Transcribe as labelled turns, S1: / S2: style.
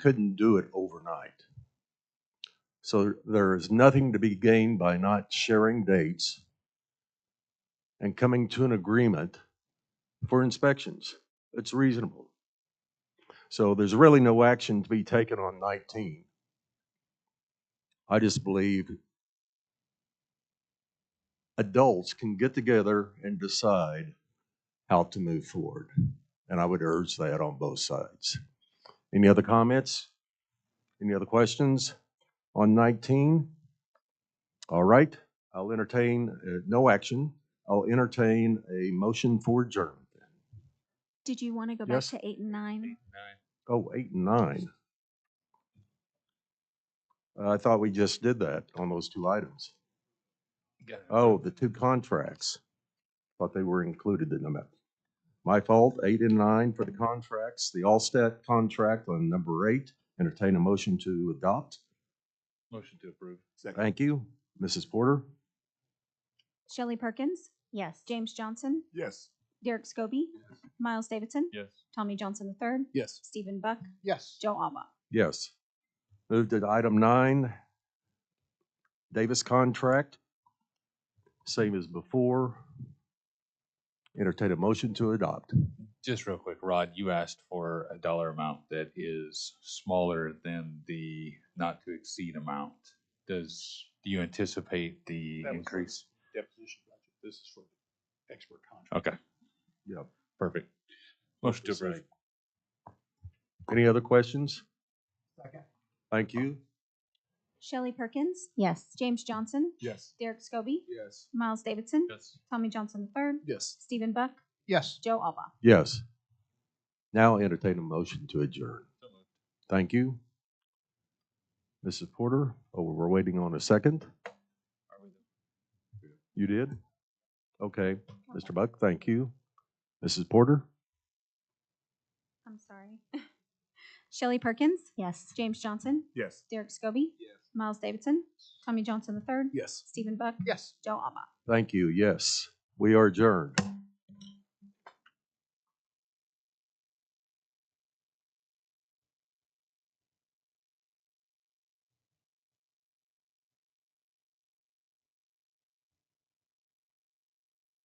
S1: couldn't do it overnight. So there is nothing to be gained by not sharing dates and coming to an agreement for inspections. It's reasonable. So there's really no action to be taken on 19. I just believe adults can get together and decide how to move forward. And I would urge that on both sides. Any other comments? Any other questions on 19? All right, I'll entertain, uh, no action. I'll entertain a motion for adjournment.
S2: Did you want to go back
S1: Yes.
S2: to eight and nine?
S1: Oh, eight and nine. Uh, I thought we just did that on those two items. Oh, the two contracts. Thought they were included in them. My fault, eight and nine for the contracts, the Allstat contract on number eight. Entertain a motion to adopt.
S3: Oh. Motion to approve.
S1: Thank you. Mrs. Porter?
S2: Shelley Perkins? Yes. James Johnson?
S3: Yes.
S2: Derek Scobie? Miles Davidson?
S3: Yes.
S2: Tommy Johnson III?
S3: Yes.
S2: Stephen Buck?
S3: Yes.
S2: Joe Alba?
S1: Yes. Move to item nine, Davis contract. Same as before. Entertain a motion to adopt.
S3: Just real quick, Rod, you asked for a dollar amount that is smaller than the not to exceed amount. Does, do you anticipate the
S4: That was-
S3: increase?
S4: deposition budget. This is for the expert contract.
S3: Okay,
S1: Yep.
S3: perfect. Motion to approve.
S1: Any other questions? Thank you.
S2: Shelley Perkins?
S5: Yes.
S2: James Johnson?
S4: Yes.
S2: Derek Scobie?
S4: Yes.
S2: Miles Davidson?
S3: Yes.
S2: Tommy Johnson III?
S4: Yes.
S2: Stephen Buck?
S4: Yes.
S2: Joe Alba?
S1: Yes. Now entertain a motion to adjourn. Thank you. Mrs. Porter, oh, we're waiting on a second. You did? Okay. Mr. Buck, thank you. Mrs. Porter?
S2: I'm sorry. Shelley Perkins?
S5: Yes.
S2: James Johnson?
S4: Yes.
S2: Derek Scobie?
S4: Yes.
S2: Miles Davidson? Tommy Johnson III?
S4: Yes.
S2: Stephen Buck?
S4: Yes.
S2: Joe Alba?
S1: Thank you. Yes, we are adjourned.